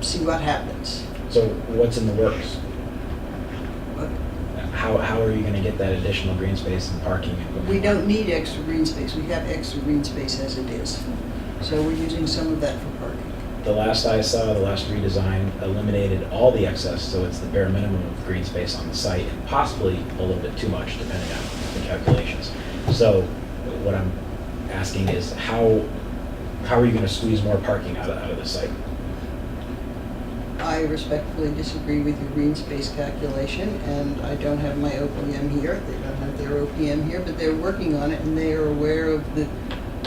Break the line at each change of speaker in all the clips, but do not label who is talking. see what happens.
So what's in the works?
But
How, how are you going to get that additional green space and parking?
We don't need extra green space, we have extra green space as it is. So we're using some of that for parking.
The last I saw, the last redesign eliminated all the excess, so it's the bare minimum of green space on the site and possibly a little bit too much depending on the calculations. So what I'm asking is how, how are you going to squeeze more parking out of, out of the site?
I respectfully disagree with your green space calculation, and I don't have my OPM here, they don't have their OPM here, but they're working on it, and they are aware of the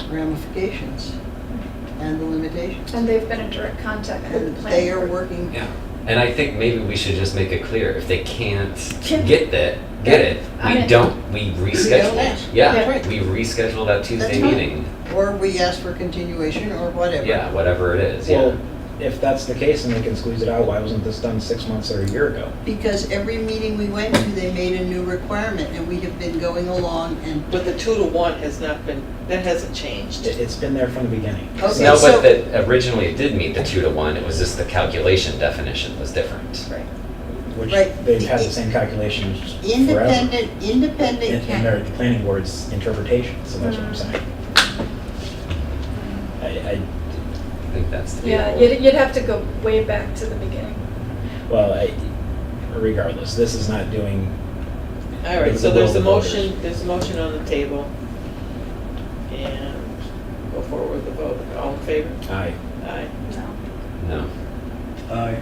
ramifications and the limitations.
And they've been in direct contact with
And
the planning.
they are
board.
working,
Yeah, and I think maybe we should just make it clear, if they can't
Can-
get that, get it,
I
we
mean-
don't, we
ask.
reschedule.
That's
Yeah,
right.
we reschedule that
That's
Tuesday
fine.
meeting,
or we ask for continuation, or whatever.
yeah, whatever it is, yeah.
Well, if that's the case and they can squeeze it out, why wasn't this done six months or a year ago?
Because every meeting we went to, they made a new requirement, and we have been going along and
But the two to one has not been, that hasn't changed.
It- It's been there from the beginning.
Okay,
So-
No,
so-
but that originally it did meet the two to one, it was just the calculation definition was different.
Right.
Which
Right.
they've had the same calculations forever.
independent, independent.
In, in their planning board's interpretation, so that's what I'm
Mm.
saying. I,
I think that's the.
Yeah,
deal.
you'd, you'd have to go way back to the beginning.
I, well, I, regardless, this is not doing,
All right,
It's
so
the will
there's a
of the voters.
motion, there's a motion on the table. And go forward with the vote. All in favor?
I,
Aye.
No.
No,
Aye,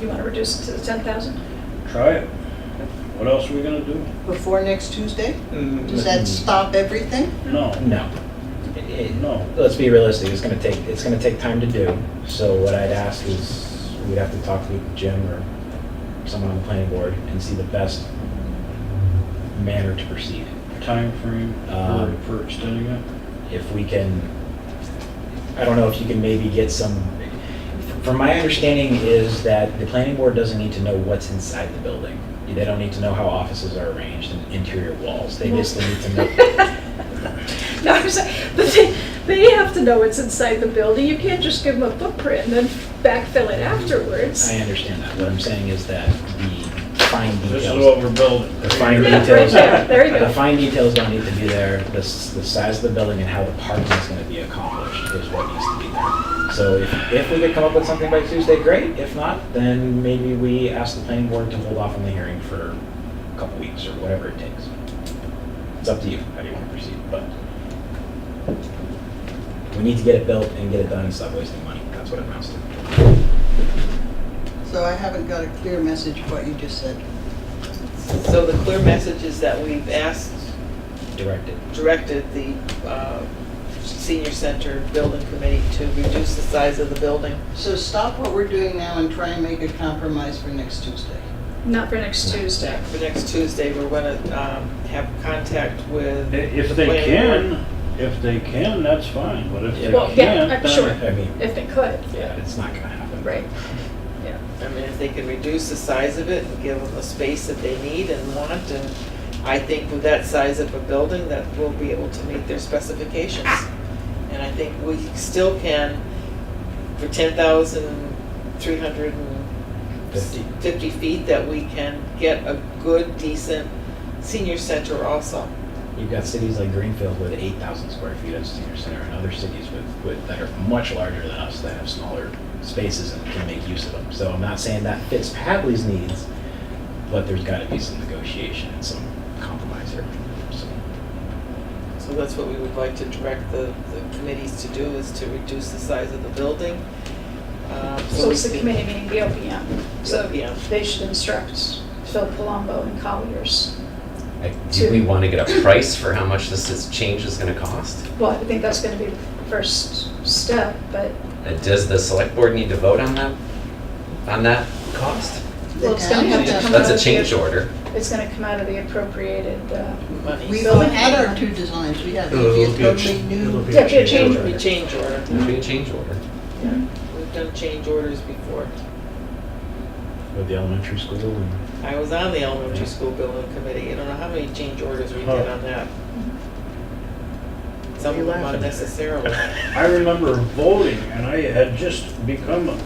You want to reduce it to the 10,000?
try it. What else are we gonna do?
Before next Tuesday? Does
Mm.
that stop everything?
No,
no. It- it-
no.
Let's be realistic, it's gonna take, it's gonna take time to do, so what I'd ask is, we'd have to talk with Jim or someone on the planning board and see the best manner to proceed.
Timeframe
Um,
for, for extending it?
if we can, I don't know if you can maybe get some, from my understanding is that the planning board doesn't need to know what's inside the building. They don't need to know how offices are arranged and interior walls. They basically need to know.
No, I'm saying, but they, they have to know what's inside the building. You can't just give them a footprint and then backfill it afterwards.
I understand that. What I'm saying is that the fine
This is what
details,
we're building.
the fine
Yeah, right
details.
there. There you go.
The fine details don't need to be there. The, s- the size of the building and how the parking is gonna be accomplished is what needs to be there. So if, if we could come up with something by Tuesday, great. If not, then maybe we ask the planning board to hold off on the hearing for a couple weeks or whatever it takes. It's up to you, how do you wanna proceed, but we need to get it built and get it done and stop wasting money. That's what it amounts to.
So I haven't got a clear message of what you just said.
So the clear message is that we've asked,
Directed.
directed the uh, senior center building committee to reduce the size of the building.
So stop what we're doing now and try and make a compromise for next Tuesday.
Not for next Tuesday.
For next Tuesday, we're gonna um, have contact with.
I- If
the
they
planning board.
can, if they can, that's fine, but if they
Well,
can't,
yeah, I'm
then.
sure.
I mean,
If they could,
yeah, it's not gonna happen.
right.
I mean, if they can reduce the size of it and give them the space that they need and want, and I think with that size of a building, that we'll be able to meet their specifications. And I think we still can, for ten thousand three hundred and
Fifty.
fifty feet, that we can get a good, decent senior center also.
You've got cities like Greenfield with 8,000 square feet of senior center and other cities with, with, that are much larger than us that have smaller spaces and can make use of them. So I'm not saying that fits Hadley's needs, but there's got to be some negotiation and some compromise here. So
So that's what we would like to direct the, the committees to do, is to reduce the size of the building. um,
So it's
we
the
can-
committee meeting, the OPM. So
Yeah.
they should instruct Phil Palumbo and Colliers.
I- do we wanna get a price for how much this is, change is gonna cost?
Well, I think that's going to be the first step, but
And does the select board need to vote on that, on that cost?
Well, it's gonna have to come
That's
out
a
of
change
the-
order.
it's going to come out of the appropriated, uh,
Money.
We
So-
only had our two designs, we had it'd be a totally new.
Yeah, be a change
We change order.
It'd be a change order.
We've done change orders before.
With the elementary school and
I was on the elementary school building committee. I don't know how many change orders we did
Huh.
on that. Some of them unnecessarily.
I remember voting, and I had just become a